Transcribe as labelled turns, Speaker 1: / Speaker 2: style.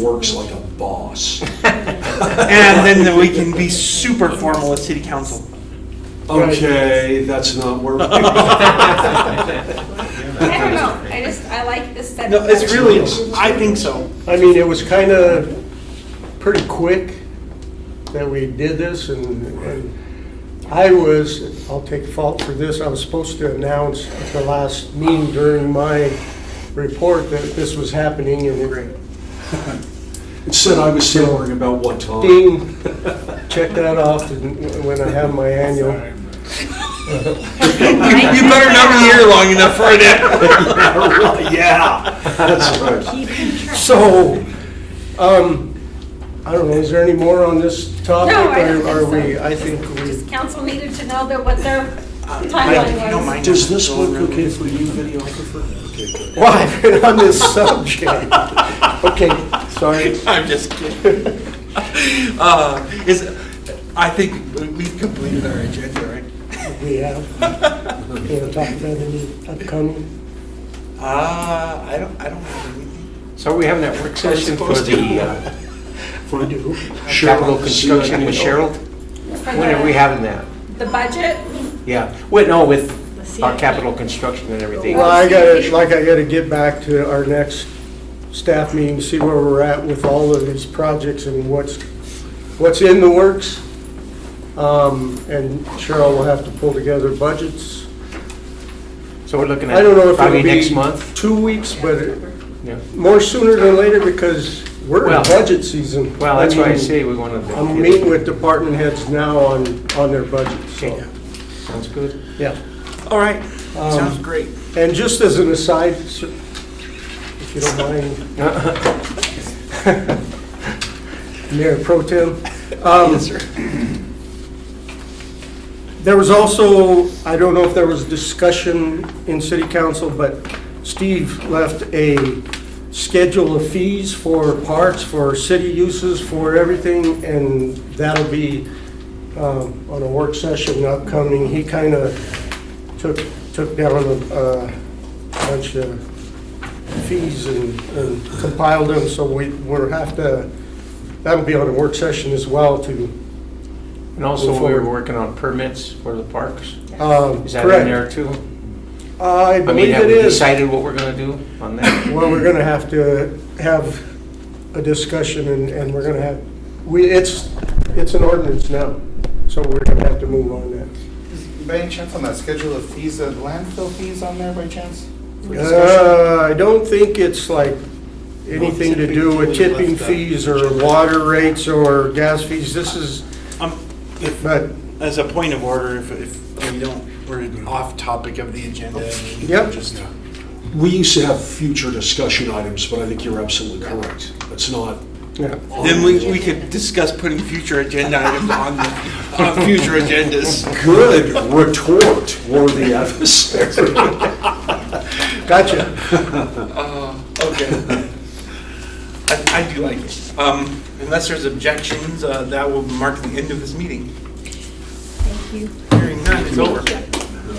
Speaker 1: works like a boss.
Speaker 2: And then we can be super formal at city council.
Speaker 1: Okay, that's not working.
Speaker 3: I don't know, I just, I like this set.
Speaker 2: No, it's really, I think so.
Speaker 4: I mean, it was kind of pretty quick that we did this, and and I was, I'll take fault for this, I was supposed to announce at the last meeting during my report that this was happening, and it-
Speaker 1: It said I was sailing about what time?
Speaker 4: ding, check that off and when I have my annual.
Speaker 2: You you better not be here long enough for it.
Speaker 1: Yeah, that's right.
Speaker 4: So, um, I don't know, is there any more on this topic?
Speaker 3: No, I don't
Speaker 4: or Are
Speaker 3: think so.
Speaker 4: we, I think we,
Speaker 3: Just council needed to know that what their
Speaker 2: Uh, you don't
Speaker 3: timeline was.
Speaker 2: mind.
Speaker 1: Does this look okay for you, videographer? Okay, good.
Speaker 4: well, I've been on this subject. Okay, sorry.
Speaker 2: I'm just kidding. Uh, Is, I think we've completed our agenda, right?
Speaker 4: we have, you know, talk about any upcoming.
Speaker 2: Uh, I don't, I don't have anything.
Speaker 5: So are we having that work session for
Speaker 2: supposed
Speaker 5: the uh,
Speaker 4: I do.
Speaker 5: capital
Speaker 1: Cheryl,
Speaker 5: construction with Cheryl?
Speaker 3: For
Speaker 5: When are we
Speaker 3: the-
Speaker 5: having that?
Speaker 3: The budget,
Speaker 5: Yeah, wait, no, with our capital construction and everything.
Speaker 4: Well, I gotta, like, I gotta get back to our next staff meeting, see where we're at with all of these projects and what's, what's in the works. Um, and Cheryl will have to pull together budgets.
Speaker 5: So we're looking
Speaker 4: I don't know
Speaker 5: at
Speaker 4: if
Speaker 5: probably next
Speaker 4: it'll be
Speaker 5: month?
Speaker 4: two weeks, but it-
Speaker 5: Yeah.
Speaker 4: more sooner than later because we're in
Speaker 5: Well-
Speaker 4: budget season.
Speaker 5: Well, that's why I
Speaker 4: mean,
Speaker 5: say we want to.
Speaker 4: I'm meeting with department heads now on, on their budgets, so,
Speaker 5: Okay. Sounds good.
Speaker 4: yeah.
Speaker 2: All right, sounds great.
Speaker 4: And just as an aside, sir, if you don't mind. Mayor Pro Tem. um, There was also, I don't know if there was discussion in city council, but Steve left a schedule of fees for parks, for city uses, for everything, and that'll be um, on a work session upcoming. He kind of took, took down a uh, bunch of fees and and compiled them, so we, we'll have to, that'll be on a work session as well to,
Speaker 5: And also,
Speaker 4: Move
Speaker 5: we
Speaker 4: forward.
Speaker 5: were working on permits for the parks.
Speaker 4: um,
Speaker 5: Is that in
Speaker 4: correct.
Speaker 5: there too?
Speaker 4: I
Speaker 5: I mean,
Speaker 4: believe
Speaker 5: have
Speaker 4: it
Speaker 5: we
Speaker 4: is.
Speaker 5: decided what we're going to do on that?
Speaker 4: Well, we're gonna have to have a discussion and, and we're gonna have, we, it's, it's an ordinance now, so we're gonna have to move on that.
Speaker 6: By any chance on that schedule of fees, uh, landfill fees on there by chance? for discussion?
Speaker 4: Uh, I don't think it's like anything to uh, do with tipping fees or water rates or gas fees. This is,
Speaker 2: Um, if-
Speaker 4: but,
Speaker 2: As a point of order, if, if we don't, we're off topic of the agenda. and we
Speaker 4: Yep.
Speaker 2: Just
Speaker 1: We used to have future discussion items, but I think you're absolutely correct. It's not.
Speaker 4: yeah.
Speaker 1: on
Speaker 2: Then we,
Speaker 1: the-
Speaker 2: we could discuss putting future agenda items on, the- on future agendas.
Speaker 1: Good retort, worthy adversary.
Speaker 4: Gotcha.
Speaker 2: Uh, Okay. I, I do like it. Um, Unless there's objections, uh, that will mark the end of this meeting.
Speaker 3: thank you.
Speaker 2: Hearing none, it's over.